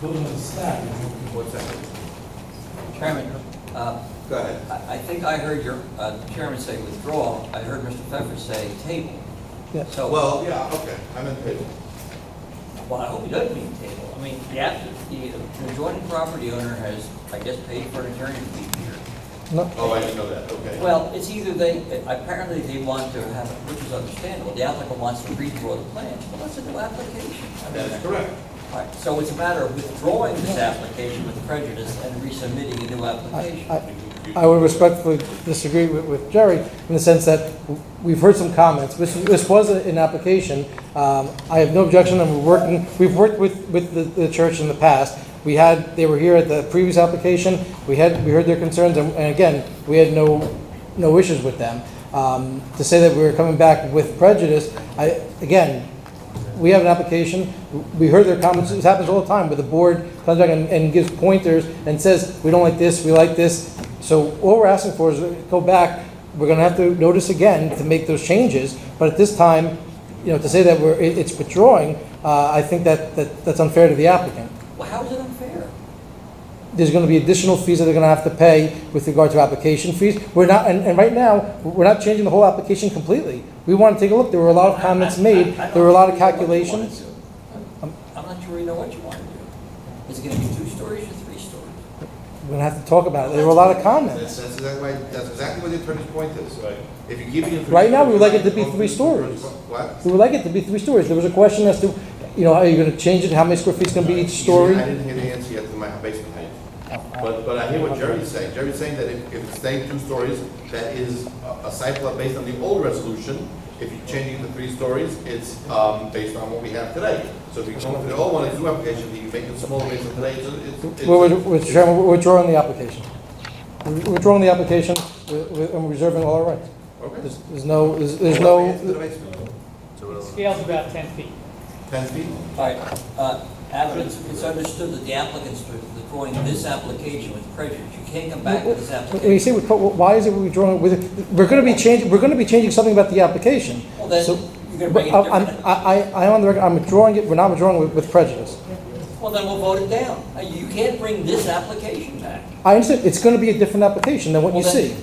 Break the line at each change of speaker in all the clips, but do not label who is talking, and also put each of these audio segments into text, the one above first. building is stacked, you know.
What's that?
Chairman, uh,
Go ahead.
I I think I heard your uh, chairman say withdrawal. I heard Mr. Pfeffer say table.
Yes.
So, well,
Oh, Well, yeah, okay, I'm in favor.
I hope he doesn't mean table. I mean, the app- the the adjoining property owner has, I guess, paid for an attorney to be here.
No,
Oh, I didn't know that, okay.
Well, it's either they, apparently they want to have, which is understandable, the applicant wants to redraw the plans, well, that's a new application. I mean,
That's correct.
right. So it's a matter of withdrawing this application with prejudice and resubmitting a new
I-
application.
I I would respectfully disagree with- with Jerry in the sense that we've heard some comments. This this was an application. Um, I have no objection, and we're working, we've worked with with the- the church in the past. We had, they were here at the previous application, we had, we heard their concerns, and and again, we had no, no issues with them. Um, To say that we were coming back with prejudice, I, again, we have an application, we heard their comments, this happens all the time, where the board comes back and, and gives pointers and says, we don't like this, we like this. So all we're asking for is go back, we're gonna have to notice again to make those changes, but at this time, you know, to say that we're, it- it's withdrawing, uh, I think that, that, that's unfair to the applicant.
Well, how is it unfair?
There's gonna be additional fees that they're gonna have to pay with regard to application fees. We're not, and, and right now, we're not changing the whole application completely. We wanna take a look, there were a lot of comments made,
I- I- I don't
there were a lot of
really know what you wanna
calculations.
do. I'm- I'm not sure we know what you want to do. Is it going to be two stories or three stories?
We're gonna have to talk about it. There were a lot of
That's,
comments.
that's exactly why, that's exactly what the attorney's point is. Right. If you give the information.
Right now, we would like it to be
Go through
three
the
stories.
first- What?
We would like it to be three stories. There was a question as to, you know, are you gonna change it? How many square feet's gonna be each story?
I didn't hear the answer yet to my basement height. But, but I hear what Jerry's saying. Jerry's saying that if, if it's staying two stories, that is a- a site plan based on the old resolution. If you're changing it to three stories, it's, um, based on what we have today. So if you go for the old one, it's new application, you make it smaller based on today, it's, it's- it's.
We're, we're- we're- Chairman, we're withdrawing the application. We're withdrawing the application we're- we're- and reserving all our rights.
Okay.
There's, there's no, there's, there's
It's the
no,
basement.
Scale's about 10 feet.
Ten feet?
All right, uh, Adam, it's it's understood that the applicant's withdrawing this application with prejudice. You can't come back with this
when you
application.
say, we- why is it we're withdrawing it with, we're gonna be changing, we're gonna be changing something about the application.
Well, then,
So-
you're gonna bring it
But I'm-
different.
I, I, I'm on the record, I'm withdrawing it, we're not withdrawing it with- with prejudice.
Well, then we'll vote it down. Uh, You can't bring this application back.
I understand, it's gonna be a different application than what you
Well, then,
see.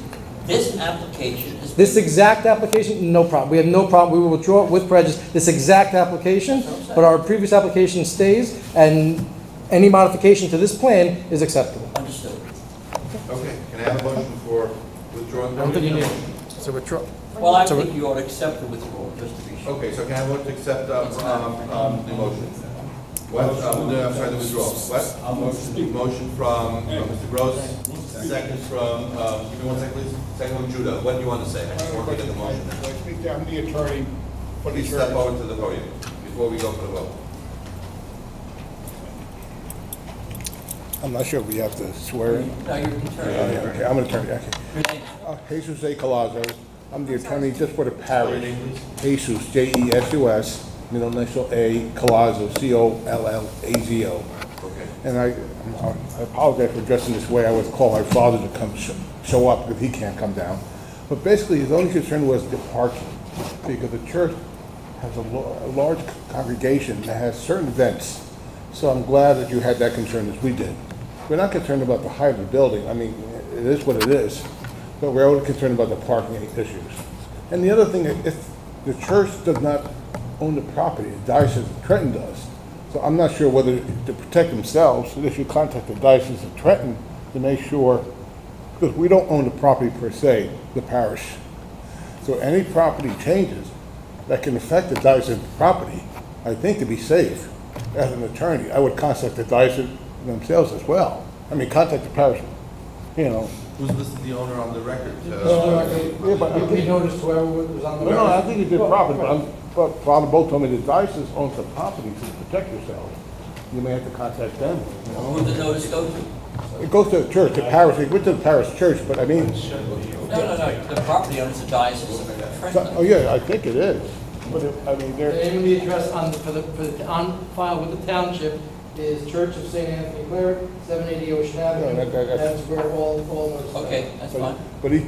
This application is.
This exact application, no problem. We have no problem. We will withdraw it with prejudice, this exact application, but our previous application stays, and any modification to this plan is acceptable.
Understood.
Okay, can I have a motion for withdrawing?
So withdraw.
Well, I
So we-
think you ought to accept the withdrawal, just to be sure.
Okay, so can I vote to accept, um, um, um, the motion? What, um, no, I'm sorry, the withdrawal, what? motion. Motion from, uh, Mr. Gross, second from, um, give me one second, please, second from Judah, what do you want to say? I just want to get the motion.
I think I'm the attorney for the
Please step
church.
forward to the podium before we go for the vote.
I'm not sure if we have to swear in.
Now, you're concerned.
Okay, I'm an attorney, okay.
Your name?
Uh, Jesus A. Colazo, I'm the attorney just for the
Your
parish.
name,
Jesus, E J-E-S-U-S, middle initial A, Colazo, C-O-L-L-A-Z-O.
Okay.
And I, I apologize for dressing this way, I would call my father to come sh- show up, because he can't come down. But basically, his only concern was the parking, because the church has a lo- a large congregation that has certain events. So I'm glad that you had that concern as we did. We're not concerned about the height of the building, I mean, it is what it is, but we're only concerned about the parking issues. And the other thing, if the church does not own the property, the diocese of Trenton does, so I'm not sure whether to protect themselves, they should contact the Diocese of Trenton to make sure, because we don't own the property per se, the parish. So any property changes that can affect the Diocese property, I think to be safe, as an attorney, I would contact the Diocese themselves as well. I mean, contact the parish, you know.
Who's listed the owner on the record? Uh,
Yeah, but I think-
noticed whoever was on
No, no, I think you did properly, but I'm, but Father Bo told me the Diocese owns the property to protect yourselves. You may have to contact them, you know.
Who'd the notice go to?
It goes to the church, the parish, it went to the parish church, but I mean,
No, no, no, the property owner's the diocese of
so- oh
Trenton.
yeah, I think it is. But it- I mean,
The
they're,
name and the address on, for the, for the, on file with the township is Church of St. Anthony Cleric, seven eighty Ocean
No,
Avenue.
that- that- that's-
That's where all, all notices are.
Okay, that's fine.
but he